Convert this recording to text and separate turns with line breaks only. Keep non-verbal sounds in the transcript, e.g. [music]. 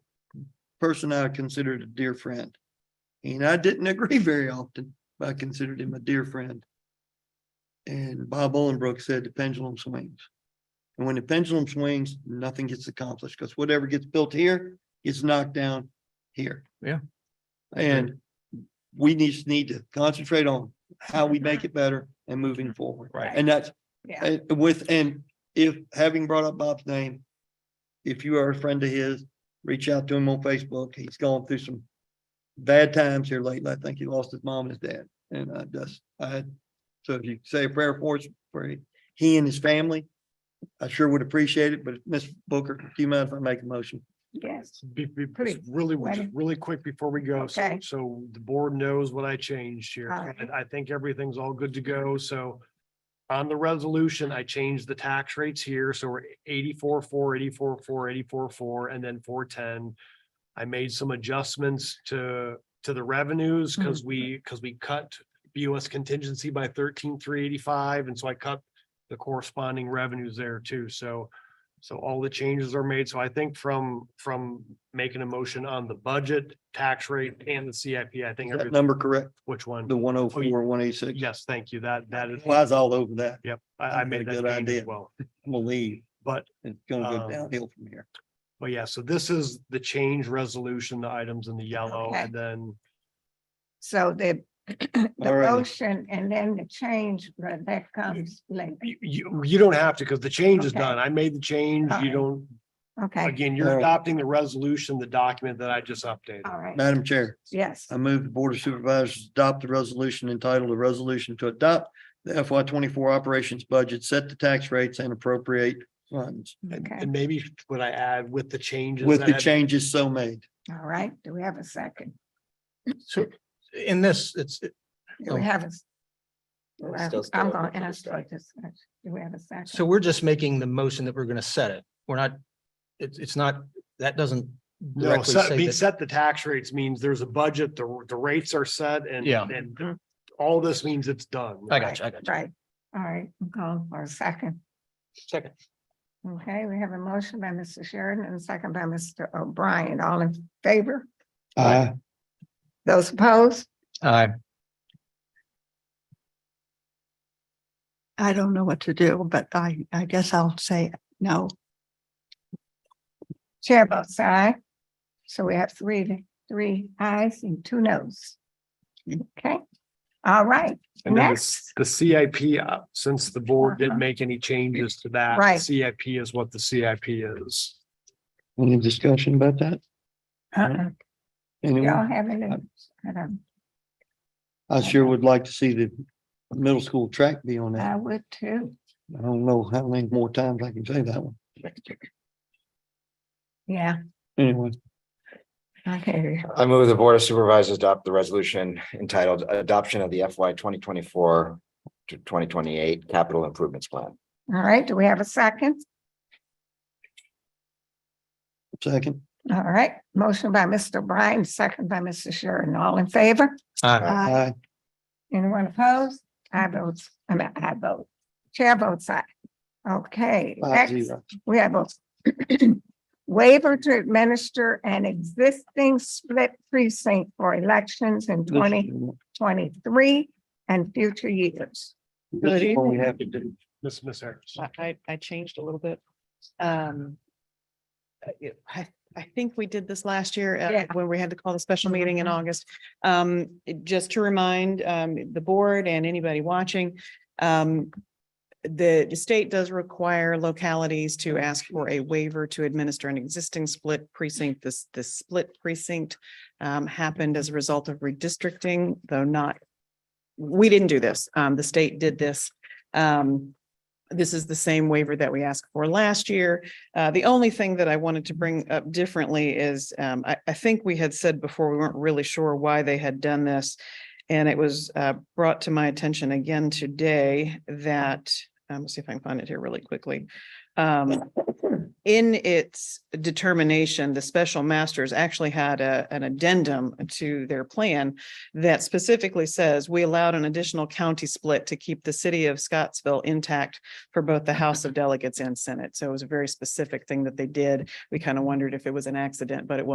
person I considered a dear friend. And I didn't [laughs] agree very often, but I considered him a dear friend. And Bob Olenbrook said the pendulum swings. And when the pendulum swings, nothing gets accomplished because whatever gets built here gets knocked down here.
Yeah.
And we just need to concentrate on how we make it better and moving forward.
Right.
And that's
Yeah.
and with, and if, having brought up Bob's name, if you are a friend of his, reach out to him on Facebook. He's gone through some bad times here lately. I think he lost his mom and his dad. And I just, I, so if you say a prayer for us, for he and his family, I sure would appreciate it, but Ms. Booker, do you mind if I make a motion?
Yes,
Be, be, just
Pretty
really, just
wedding.
really quick before we go. so-
Okay.
So the board knows what I changed here.
All right.
and I think everything's all good to go, so. On the resolution, I changed the tax rates here, so we're eighty-four, four, eighty-four, four, eighty-four, four, and then four, ten. I made some adjustments to, to the revenues,
Hmm.
because we, because we cut BOS contingency by thirteen, three eighty-five, and so I cut the corresponding revenues there too, so. So all the changes are made, so I think from, from making a motion on the budget, tax rate, and the CIP, I
Is that
think, everything-
number correct?
which one?
The one oh four, one eight six?
Yes, thank you. That, that is,
Lies all over that.
yep, I, I
Sounds like a
made that
good
change as
idea.
well.
I'm gonna leave.
But,
It's gonna go
Um,
downhill from here.
but yeah, so this is the change resolution, the items in the yellow,
Okay.
and then,
so the, [clears throat] the
All right.
motion and then the change, uh, that comes later.
you, you, you don't have to, because the change is
Okay.
done. I made the change. You
Alright.
don't,
Okay,
again,
All
you're
right.
adopting the resolution, the document that I just updated.
all right,
Madam Chair.
yes,
I move the Board of Supervisors adopt the resolution entitled a resolution to adopt the FY twenty-four operations budget, set the tax rates and appropriate funds
And,
okay,
and maybe what I add with the changes.
with
that
the
have-
changes so made.
all right. Do we have a second?
So in this, it's,
Do we
Oh.
have a? s-
Well,
I-
still
I'm
still
going
open
to
for
ask for this. Do we have a second?
so we're just making the motion that we're gonna set it. We're not, it's, it's not, that doesn't
No,
directly
set,
say
be
that.
set the tax rates means there's a budget, the, the rates are set and.
Yeah.
And all this means it's done.
I got you, I got you.
Right, all right, I'm going for a second.
Second.
Okay, we have a motion by Mr. Sheridan and a second by Mr. O'Brien. All in favor?
Uh,
Aye.
Those opposed?
Aye.
I don't know what to do, but I, I guess I'll say no.
Chair votes aye. So we have three, three ayes and two noes. Okay, all right,
And then the
next,
The CIP, uh, since the board
Uh-huh.
didn't make any changes to that.
Right.
CIP is what the CIP is.
Any discussion about that?
uh-uh, y'all
Anyone?
have any? Um, I don't,
I sure would like to see the middle school track be on
I
that.
would too.
I don't know how many more times I can say that one.
Yeah,
Anyway,
I hear you.
I move the Board of Supervisors adopt the resolution entitled Adoption of the FY twenty twenty-four to twenty twenty-eight Capital Improvements Plan.
All right, do we have a second?
second,
All right, motion by Mr. O'Brien, second by Mr. Sheridan. All in favor?
Aye.
Uh,
I,
aye.
Anyone opposed? I vote, I mean, I vote. Chair votes aye. Okay,
Five
next,
zero.
we have a [clears throat] waiver to administer an existing split precinct for elections in
This
twenty
is-
twenty-three and future years.
this is what we have to do.
Miss, Miss Harris.
I- I, I changed a little bit. Um. uh, yeah, I, I think we did this last year
Yeah.
uh, when we had to call the special meeting in August. Um, it- just to remind, um, the board and anybody watching, um. The the state does require localities to ask for a waiver to administer an existing split precinct. This, this split precinct. Um, happened as a result of redistricting, though not. We didn't do this. Um, the state did this. Um, this is the same waiver that we asked for last year. Uh, the only thing that I wanted to bring up differently is, um, I, I think we had said before, we weren't really sure why they had done this. And it was, uh, brought to my attention again today that, um, let's see if I can find it here really quickly. Um, in its determination, the special masters actually had a, an addendum to their plan that specifically says we allowed an additional county split to keep the city of Scottsville intact for both the House of Delegates and Senate. So it was a very specific thing that they did. We kind of wondered if it was an accident, but it wasn't.